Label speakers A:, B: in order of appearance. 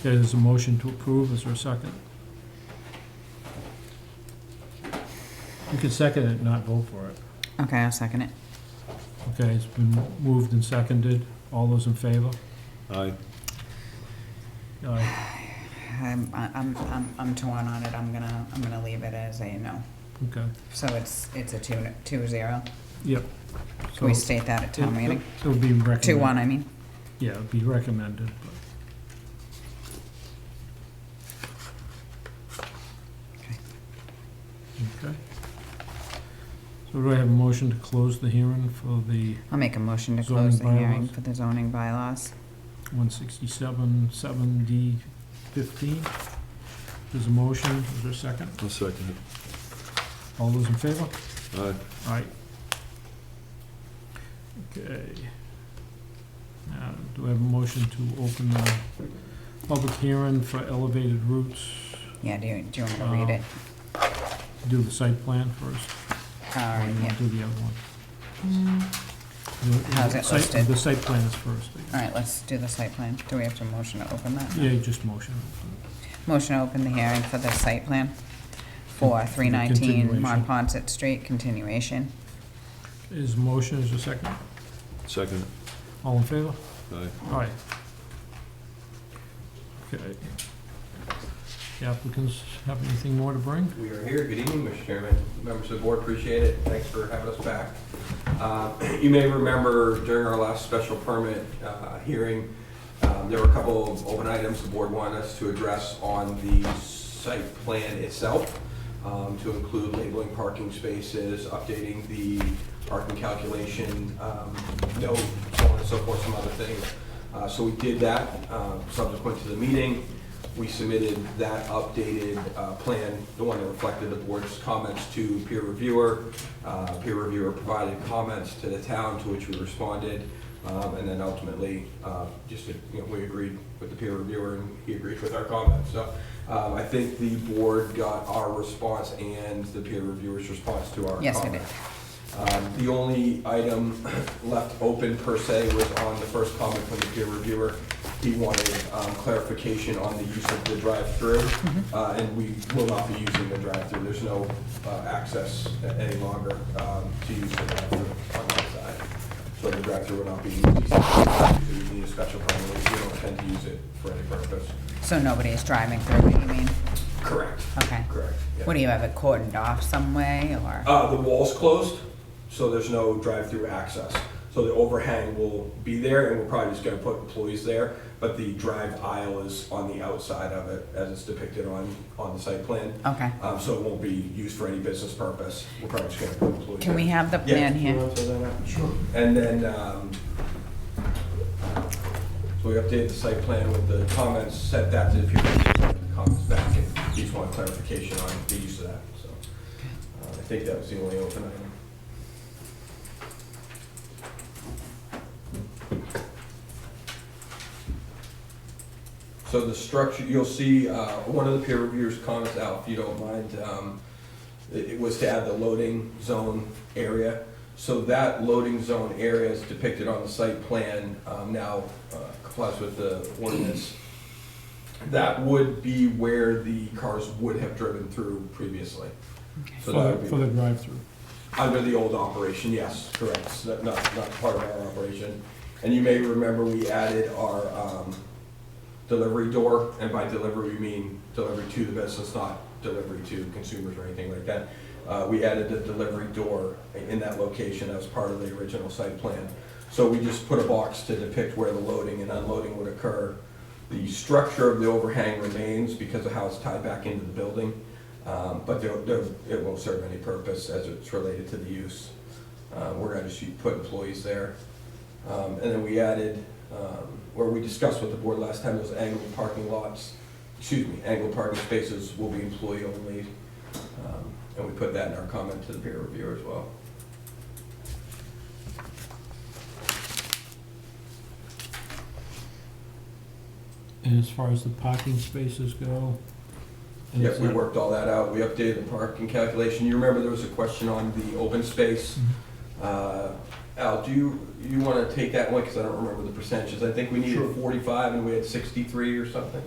A: Okay, there's a motion to approve, is there a second? You can second it, not vote for it.
B: Okay, I'll second it.
A: Okay, it's been moved and seconded, all those in favor?
C: Aye.
A: Aye,
B: I'm, I'm, I'm, I'm torn on it. I'm gonna, I'm gonna leave it as a no.
A: okay,
B: So it's, it's a two, two zero.
A: yep.
B: Can we state that at town meeting?
A: It'll be recommended.
B: Two one, I mean.
A: Yeah, it'd be recommended,
B: Okay.
A: but. Okay. So do I have a motion to close the hearing for the
B: I'll make a motion to
A: Zoning
B: close the hearing
A: bylaws.
B: for the zoning bylaws.
A: one sixty-seven, seven D fifteen? There's a motion, is there a second?
C: I'll second
A: All those in favor?
C: it. Aye.
A: Aye. Okay. Now, do I have a motion to open the public hearing for elevated routes?
B: Yeah, do you, do you want me to read it?
A: do the site plan first?
B: All
A: or
B: right,
A: you wanna
B: yeah.
A: Do the other one? The-
B: How's it
A: site-
B: listed?
A: The site plan is first. I guess.
B: All right, let's do the site plan. Do we have to motion to open that?
A: Yeah, you just motion.
B: Motion to open the hearing for the site plan for three nineteen
A: Continuation.
B: Monpont Street continuation.
A: Is motion, is a second?
C: Second
A: All in favor?
C: it. Aye.
A: Aye. Okay. The applicants have anything more to bring?
D: We are here. Good evening, Mr. Chairman. Members of the board, appreciate it. Thanks for having us back. Uh, You may remember during our last special permit uh, hearing, um, there were a couple of open items the board wanted us to address on the site plan itself, um, to include labeling parking spaces, updating the parking calculation um, note, so on and so forth, some other things. Uh, So we did that uh, subsequent to the meeting. We submitted that updated uh, plan, the one that reflected the board's comments to peer reviewer. Uh, Peer reviewer provided comments to the town, to which we responded. um, And then ultimately, uh, just, you know, we agreed with the peer reviewer and he agreed with our comments. So um, I think the board got our response and the peer reviewer's response to our comments.
B: Yes, I did.
D: Um, The only item left open per se was on the first comment from the peer reviewer. He wanted um, clarification on the use of the drive-through, uh, and we will not be using the drive-through. There's no uh, access a- any longer um, to use the drive-through on that side. So the drive-through will not be used. We need a special permit. We don't intend to use it for any purpose.
B: So nobody is driving through, you mean?
D: Correct.
B: Okay.
D: Correct. yeah.
B: What do you have it cordoned off some way or?
D: Uh, the wall's closed, so there's no drive-through access. So the overhang will be there, and we're probably just gonna put employees there, but the drive aisle is on the outside of it, as it's depicted on, on the site plan.
B: Okay.
D: Um, so it won't be used for any business purpose. We're probably just gonna put employees.
B: Can we
D: there.
B: have the
D: Yeah,
B: plan
D: you
B: here?
D: wanna throw that out? And then, um, so we updated the site plan with the comments, sent that to the people, the comments back, and each want clarification on the use of that, so. uh, I think that was the only open item. So the structure, you'll see, uh, one of the peer reviewers' comments out, if you don't mind, um, it, it was to add the loading zone area. So that loading zone area is depicted on the site plan, um, now uh, complies with the ordinance. That would be where the cars would have driven through previously.
A: For
D: So that would
A: the-
D: be-
A: for the drive-through.
D: under the old operation, yes, correct, So that- not, not part of our operation. And you may remember we added our, um, delivery door, and by delivery, we mean delivery to the business, not delivery to consumers or anything like that. Uh, we added a delivery door in that location as part of the original site plan. So we just put a box to depict where the loading and unloading would occur. The structure of the overhang remains because of how it's tied back into the building, um, but there, there, it won't serve any purpose as it's related to the use. Uh, we're gonna just put employees there. Um, And then we added, um, where we discussed with the board last time, those angled parking lots, excuse me, angled parking spaces will be employee only. Um, And we put that in our comment to the peer reviewer as well.
A: And as far as the parking spaces go? is
D: Yes, we
A: that-
D: worked all that out. We updated the parking calculation. You remember there was a question on the open space. Uh, Al, do you, you want to take that one? Because I don't remember the percentages. I think we needed
A: Sure.
D: 45 and we had 63 or something.